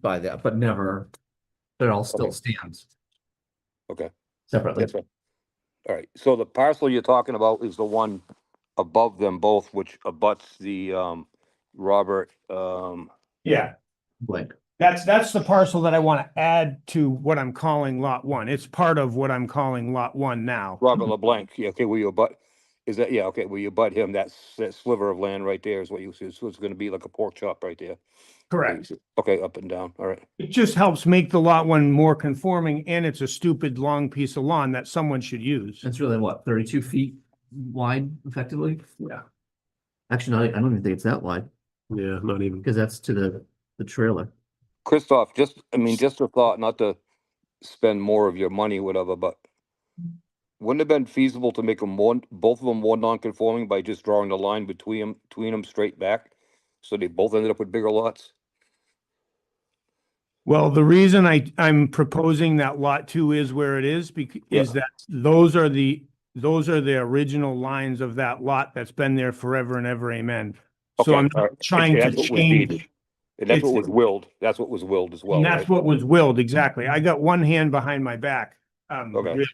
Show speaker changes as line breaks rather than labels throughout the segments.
by that, but never, but it all still
Okay.
stands.
Okay.
Separately,
That's right. All right, so the parcel you're talking about is the one above them both, which abuts the, um, Robert, um,
Yeah,
blank.
that's, that's the parcel that I want to add to what I'm calling lot one. It's part of what I'm calling lot one now.
Robert LeBlanc, yeah, okay, where you abut, is that, yeah, okay, where you abut him, that's, that sliver of land right there is what you, see. so it's gonna be like a pork chop right there. Okay, up and down, all right,
It just helps make the lot one more conforming and it's a stupid long piece of lawn that someone should use.
That's really what, thirty-two feet wide effectively? Yeah. Actually, not, I don't even think it's that wide,
Yeah, not even.
because that's to the, the trailer.
Christoph, just, I mean, just a thought, not to spend more of your money, whatever, but wouldn't it have been feasible to make them one, both of them more non-conforming by just drawing the line between them, between them straight back? So they both ended up with bigger lots?
Well, the reason I, I'm proposing that lot two is where it is bec- is that those are the, those are the original lines of that lot that's been there forever and ever, amen.
Okay,
So I'm
all
not
right. Okay,
trying to
that's what was needed.
change.
And that's what
It's-
was willed, that's what was willed as well,
And that's
right?
what was willed, exactly. I got one hand behind my back. Um,
Okay.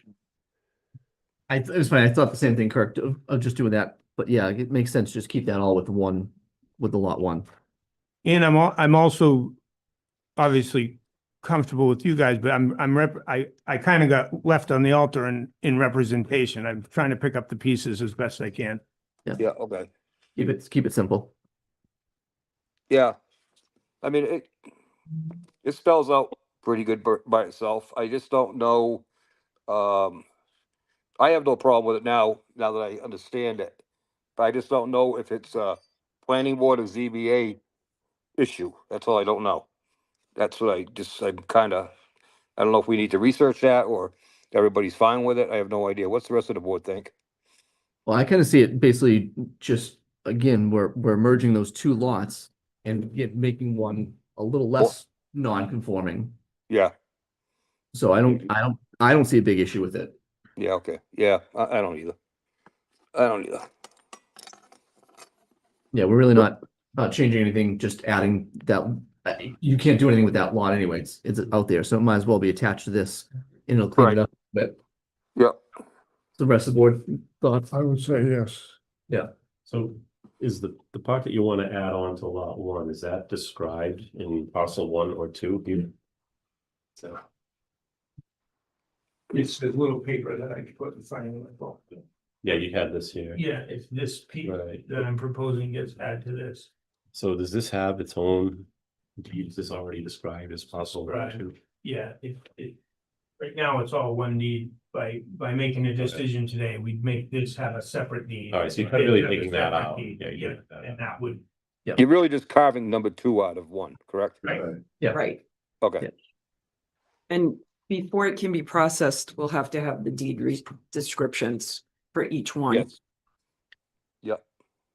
I, th- it was funny, I thought the same thing, Kirk, of, of just doing that, but yeah, it makes sense, just keep that all with one, with the lot one.
And I'm, al- I'm also obviously comfortable with you guys, but I'm, I'm rep, I, I kind of got left on the altar in, in representation. I'm trying to pick up the pieces as best I can.
Yeah, okay,
Keep it, keep it simple.
yeah. I mean, it, it spells out pretty good bur- by itself, I just don't know, um, I have no problem with it now, now that I understand it, but I just don't know if it's a planning board or ZBA issue, that's all I don't know. That's what I just, I'm kinda, I don't know if we need to research that, or everybody's fine with it, I have no idea, what's the rest of the board think?
Well, I kind of see it basically just, again, we're, we're merging those two lots and yet making one a little less non-conforming.
Yeah,
So I don't, I don't, I don't see a big issue with it.
Yeah, okay, yeah, I, I don't either. I don't either.
Yeah, we're really not, not changing anything, just adding that, uh, you can't do anything with that lot anyways. It's out there, so it might as well be attached to this. And it'll clean it
Right.
up, but.
Yep.
The rest of the board thoughts?
I would say yes.
So is the, the part that you want to add on to lot one, is that described in parcel one or two here? So,
It's the little paper that I put in front of my phone.
yeah, you had this here.
Yeah, it's this piece
Right.
that I'm proposing gets added to this.
So does this have its own, is this already described as parcel one or
Right.
two?
Yeah, it, it, right now it's all one deed. By, by making a decision today, we'd make this have a separate deed.
All right, so you're kind of really
It's a
taking that
separate
out.
deed,
Yeah, you're
Yeah,
taking that
and that would,
You're really just carving number two out of one, correct?
Right.
Right,
Okay,
Yeah.
and before it can be processed, we'll have to have the deed re- descriptions for each one.
yes,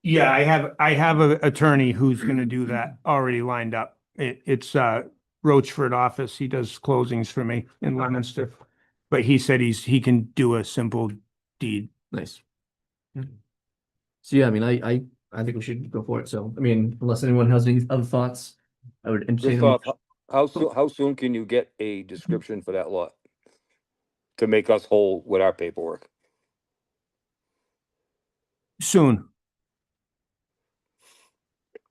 Yeah, I have, I have an attorney who's gonna do that already lined up. It, it's, uh, Roachford office. He does closings for me in Leominster. But he said he's, he can do a simple deed.
Nice. So yeah, I mean, I, I, I think we should go for it. So, I mean, unless anyone has any other thoughts, I would entertain.
Just
a mo-
off, how soon, how soon can you get a description for that lot? To make us whole with our paperwork?
Soon.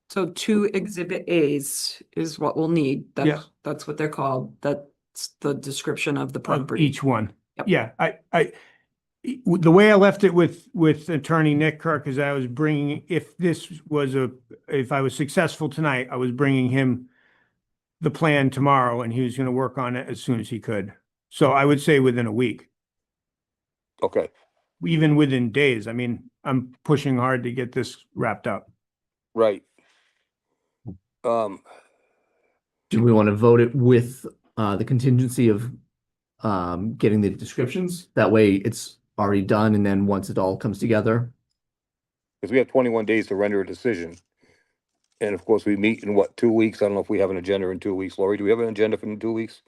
So two exhibit As is what we'll need. That's, that's what they're called. That's the description of the
of
property.
each one.
Yep.
Yeah, I, I, e- w- the way I left it with, with Attorney Nick Kirk is I was bringing, if this was a, if I was successful tonight, I was bringing him the plan tomorrow and he was gonna work on it as soon as he could. So I would say within a week,
Okay,
even within days. I mean, I'm pushing hard to get this wrapped up.
right. Um,
Do we want to vote it with, uh, the contingency of, um, getting the descriptions? That way it's already done and then once it all comes together,
because we have twenty-one days to render a decision. And of course, we meet in what, two weeks? I don't know if we have an agenda in two weeks. Lori, do we have an agenda for in two weeks?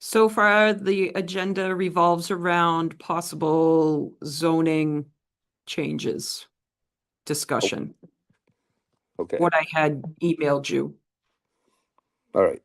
So far, the agenda revolves around possible zoning changes discussion,
Okay,
what I had emailed you.
all right.